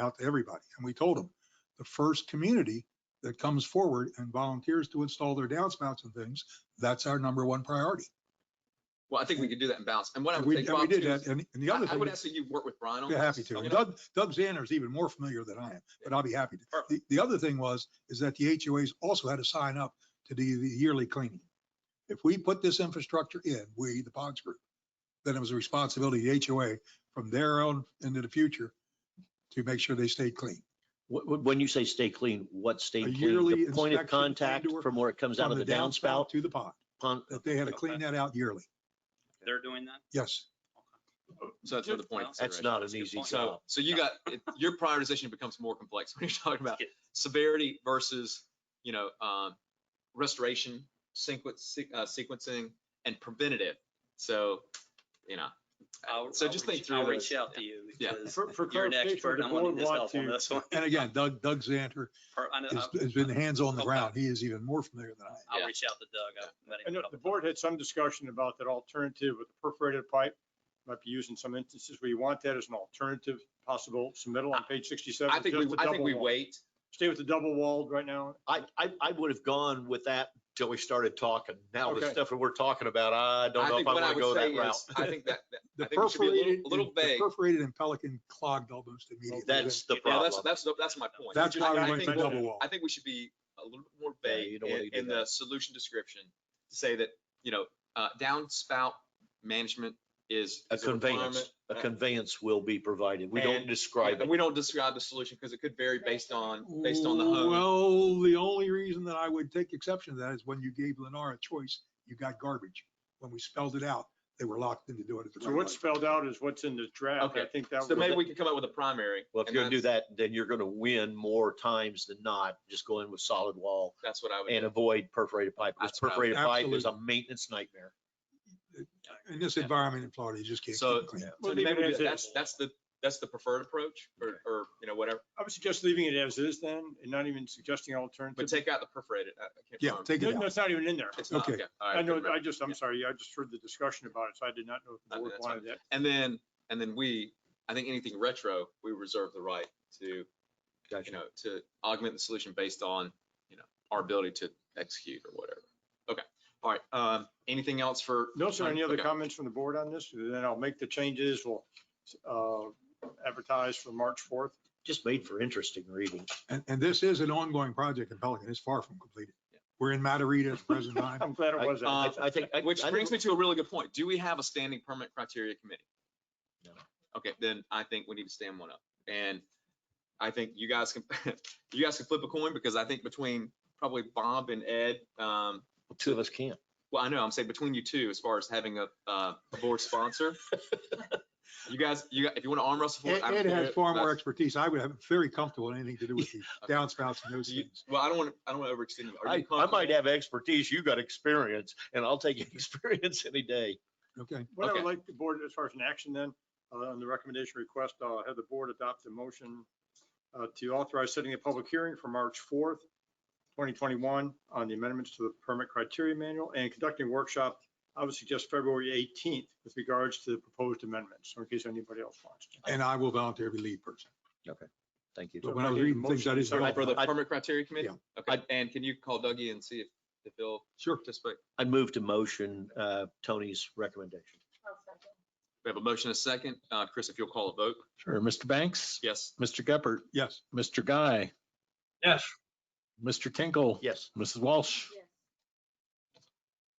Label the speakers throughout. Speaker 1: out to everybody. And we told them, the first community that comes forward and volunteers to install their downspouts and things, that's our number one priority.
Speaker 2: Well, I think we could do that in balance. And what I
Speaker 1: And we,
Speaker 2: would think,
Speaker 1: and we
Speaker 2: Bob,
Speaker 1: did
Speaker 2: too,
Speaker 1: that.
Speaker 2: is-
Speaker 1: And, and the
Speaker 2: I
Speaker 1: other
Speaker 2: I
Speaker 1: thing,
Speaker 2: would ask that you work with Brian on
Speaker 1: you're
Speaker 2: this.
Speaker 1: happy to.
Speaker 2: I'm
Speaker 1: And
Speaker 2: gonna-
Speaker 1: Doug, Doug Zander is even more familiar than I am, but I'll be happy to.
Speaker 2: Perfect.
Speaker 1: The, the other thing was, is that the HOAs also had to sign up to do the yearly cleaning. If we put this infrastructure in, we, the Ponds Group, then it was a responsibility of the HOA from their own into the future to make sure they stayed clean.
Speaker 3: Wh- wh- When you say stay clean, what stay
Speaker 1: A
Speaker 3: clean?
Speaker 1: yearly
Speaker 3: The point
Speaker 1: inspection
Speaker 3: of contact
Speaker 1: and/or
Speaker 3: from where it comes out
Speaker 1: From
Speaker 3: of the downspout?
Speaker 1: To the pond,
Speaker 3: Pond-
Speaker 1: that they had to clean that out yearly.
Speaker 4: They're doing that?
Speaker 1: Yes.
Speaker 2: So that's another point. of
Speaker 3: That's
Speaker 2: consideration.
Speaker 3: not an
Speaker 4: That's a good
Speaker 3: easy
Speaker 4: point.
Speaker 2: So,
Speaker 3: job.
Speaker 2: so you got, it- your prioritization becomes more complex when you're talking about
Speaker 4: Yeah.
Speaker 2: severity versus, you know, um, restoration, sequence, uh, sequencing and preventative. So, you know,
Speaker 4: I'll-
Speaker 2: Uh, so
Speaker 4: I'll
Speaker 2: just
Speaker 4: reach-
Speaker 2: think through
Speaker 4: I'll
Speaker 2: those.
Speaker 4: reach out to you
Speaker 2: Yeah.
Speaker 4: because
Speaker 5: For- for
Speaker 4: you're an
Speaker 5: clarification,
Speaker 4: expert.
Speaker 5: the
Speaker 4: I'm gonna
Speaker 5: board
Speaker 4: need this
Speaker 5: want
Speaker 4: help on
Speaker 5: to-
Speaker 4: this one.
Speaker 1: And again, Doug, Doug Zanter
Speaker 4: Per- I know-
Speaker 1: has,
Speaker 4: I'll
Speaker 1: has been hands on the
Speaker 4: Okay.
Speaker 1: ground. He is even more familiar than I am.
Speaker 2: Yeah.
Speaker 4: I'll reach out to Doug. I'll let him
Speaker 5: I know
Speaker 4: know.
Speaker 5: the board had some discussion about that alternative with the perforated pipe. Might be used in some instances where you want that as an alternative possible submittal on page sixty-seven.
Speaker 2: I think we,
Speaker 5: just the
Speaker 2: I think
Speaker 5: double
Speaker 2: we
Speaker 5: wall.
Speaker 2: wait.
Speaker 5: Stay with the double walled right now.
Speaker 3: I, I, I would have gone with that till we started talking. Now the
Speaker 5: Okay.
Speaker 3: stuuld stuff that we're talking about, I don't know
Speaker 2: I
Speaker 3: if
Speaker 2: think
Speaker 3: I
Speaker 2: what I
Speaker 3: want to go
Speaker 2: would say
Speaker 3: that route.
Speaker 2: is, I think that, that-
Speaker 1: The
Speaker 2: I think we should be a
Speaker 1: perforated,
Speaker 2: little, a little
Speaker 1: and- the
Speaker 2: vague.
Speaker 1: Perforated and Pelican clogged almost immediately.
Speaker 3: That's the
Speaker 2: Yeah, that's,
Speaker 3: problem.
Speaker 2: that's, that's my point.
Speaker 1: That's
Speaker 2: Which is,
Speaker 1: why
Speaker 2: I
Speaker 1: we went
Speaker 2: think
Speaker 1: to
Speaker 2: we'll-
Speaker 1: double wall.
Speaker 2: I think we should be a little bit more
Speaker 3: Yeah, you
Speaker 2: vague
Speaker 3: don't wanna
Speaker 2: in,
Speaker 3: do
Speaker 2: in the solution description to say that, you know, uh, downspout management is.
Speaker 3: A
Speaker 2: is requirement.
Speaker 3: conveyance, a
Speaker 2: Uh,
Speaker 3: conveyance will be provided. We don't
Speaker 2: And-
Speaker 3: describe
Speaker 2: And
Speaker 3: it.
Speaker 2: we don't describe the solution because it could vary based on, based on the home.
Speaker 1: Well, the only reason that I would take exception to that is when you gave Lennar a choice, you got garbage. When we spelled it out, they were locked into doing it. the
Speaker 5: So
Speaker 1: right
Speaker 5: what's
Speaker 1: way.
Speaker 5: spelled out is what's in the draft. I
Speaker 2: Okay.
Speaker 5: think that
Speaker 2: So maybe
Speaker 5: was,
Speaker 2: we can come up with a primary.
Speaker 3: Well, if
Speaker 2: and
Speaker 3: you're gonna do
Speaker 2: that's-
Speaker 3: that, then you're gonna win more times than not. Just go in with solid wall
Speaker 2: That's what I would.
Speaker 3: and
Speaker 2: do.
Speaker 3: avoid perforated pipe. Because
Speaker 2: That's what I would-
Speaker 3: perforated pipe is a maintenance nightmare.
Speaker 1: In this environment in Florida, you just can't.
Speaker 2: So-
Speaker 1: keep it clean.
Speaker 2: So
Speaker 5: Well,
Speaker 2: maybe
Speaker 5: leave it
Speaker 2: we
Speaker 5: as
Speaker 2: do-
Speaker 5: is.
Speaker 2: that's, that's the, that's the preferred approach or, or, you know, whatever,
Speaker 5: I would suggest leaving it as is then and not even suggesting
Speaker 2: but
Speaker 5: alternative.
Speaker 2: take out the perforated. I- I can't
Speaker 1: Yeah,
Speaker 2: remember.
Speaker 1: take it
Speaker 5: No,
Speaker 1: out.
Speaker 5: That's not even in there.
Speaker 2: It's not,
Speaker 1: okay.
Speaker 2: okay. all right,
Speaker 5: I know,
Speaker 2: couldn't remember.
Speaker 5: I just, I'm sorry. I just heard the discussion about it, so I did not know if the
Speaker 2: Okay,
Speaker 5: board
Speaker 2: that's fine.
Speaker 5: wanted that.
Speaker 2: And then, and then we, I think anything retro, we reserve the right to, you know, to augment the solution based on, you know, our ability to execute or whatever. Okay, all right, um, anything else for?
Speaker 5: No, sir. Any other
Speaker 2: Okay.
Speaker 5: comments from the board on this? Then I'll make the changes. We'll uh, advertise for March 4th.
Speaker 3: Just made for interesting reading.
Speaker 1: And, and this is an ongoing project in Pelican. It's far from completed. We're in Matarita at the present time.
Speaker 5: I'm glad it
Speaker 3: I-
Speaker 5: was.
Speaker 2: uh,
Speaker 5: that.
Speaker 3: I, I think. I-
Speaker 2: Which
Speaker 3: I
Speaker 2: brings
Speaker 3: think-
Speaker 2: me to a really good point. Do we have a standing permit criteria committee?
Speaker 3: No.
Speaker 2: Okay, then I think we need to stand one up. And I think you guys can, you guys can flip a coin because I think between probably Bob and Ed, um,
Speaker 3: Two of us can't.
Speaker 2: Well, I know, I'm saying between you two, as far as having a, uh, a board sponsor. You guys, you, got- if you want to arm wrestle for
Speaker 1: Ed
Speaker 2: it. I'm
Speaker 1: Ed
Speaker 2: for
Speaker 1: has
Speaker 2: it.
Speaker 1: far more
Speaker 2: That's-
Speaker 1: expertise. I would have very comfortable in anything to do with the downspouts and those
Speaker 2: Do you-
Speaker 1: things.
Speaker 2: Well, I don't want, to. I don't want to overextend you. Are you
Speaker 3: I, I
Speaker 2: comfortable?
Speaker 3: might have expertise, you got experience, and I'll take experience any day.
Speaker 1: Okay.
Speaker 5: What I
Speaker 2: okay.
Speaker 5: would like the board, as far as an action then, uh, on the recommendation request, I'll have the board adopt a motion uh, to authorize setting a public hearing for March 4th, 2021, on the amendments to the permit criteria manual and conducting a workshop. I would suggest February 18th with regards to the proposed amendments, in case anybody else wants. to.
Speaker 1: And I will volunteer to be lead person.
Speaker 3: Thank you.
Speaker 1: But when I was reading things, I didn't.
Speaker 5: Sorry,
Speaker 1: realize-
Speaker 2: For the
Speaker 3: I-
Speaker 2: permit criteria committee? Okay,
Speaker 3: I-
Speaker 2: and can you call Dougie and see if, if he'll
Speaker 1: Sure.
Speaker 2: participate?
Speaker 3: I move to motion uh, Tony's recommendation.
Speaker 2: We have a motion and a second. Uh, Chris, if you'll call a vote.
Speaker 6: Sure. Mr. Banks?
Speaker 2: Yes.
Speaker 6: Mr. Geppert?
Speaker 1: Yes.
Speaker 6: Mr. Guy?
Speaker 4: Yes.
Speaker 6: Mr. Tinkle?
Speaker 3: Yes.
Speaker 6: Mrs. Walsh?
Speaker 7: Yes.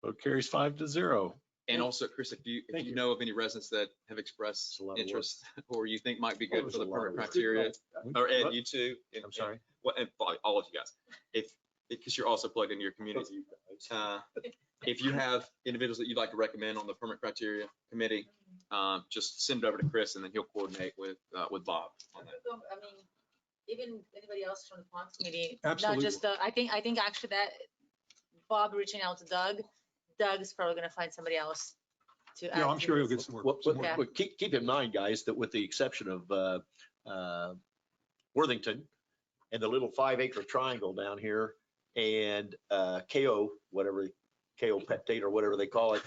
Speaker 6: Vote carries five to zero.
Speaker 2: And also, Chris, if you, if
Speaker 5: Thank
Speaker 2: you
Speaker 5: you.
Speaker 2: know of any residents that have expressed
Speaker 3: It's a lot of work.
Speaker 2: interest or you think might be
Speaker 3: That
Speaker 2: good
Speaker 3: was
Speaker 2: for
Speaker 3: a
Speaker 2: the
Speaker 3: lot
Speaker 2: permit
Speaker 3: of work.
Speaker 2: criteria, or Ed,
Speaker 5: What?
Speaker 2: you too. and-
Speaker 3: I'm
Speaker 2: and-
Speaker 3: sorry.
Speaker 2: well, and probably all of you guys, if, because you're also plugged into your community. Uh, If you have individuals that you'd like to recommend on the permit criteria committee, um, just send it over to Chris and then he'll coordinate with, uh, with Bob on that.
Speaker 7: So, I mean, even anybody else from the Ponds committee.
Speaker 1: Absolutely.
Speaker 7: Not just Doug. I think, I think actually that Bob reaching out to Doug, Doug's probably gonna find somebody else to. add
Speaker 1: Yeah, I'm
Speaker 7: to
Speaker 1: sure he'll
Speaker 7: this.
Speaker 1: get some work.
Speaker 3: What-
Speaker 1: some
Speaker 3: what-
Speaker 1: work.
Speaker 3: what- Keep, keep in mind, guys, that with the exception of uh, uh, Worthington and the little five acre triangle down here and uh, KO, whatever, KO peptate or whatever they call it,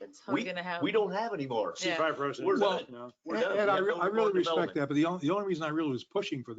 Speaker 7: That's how we're gonna have.
Speaker 3: We don't have anymore.
Speaker 7: Yeah.
Speaker 5: C5 residents.
Speaker 3: We're done.
Speaker 5: no.
Speaker 3: We're done.
Speaker 1: And I
Speaker 3: We have
Speaker 1: re-
Speaker 3: no
Speaker 1: I
Speaker 3: more
Speaker 1: really respect
Speaker 3: development.
Speaker 1: that, but the only, the only reason I really was pushing for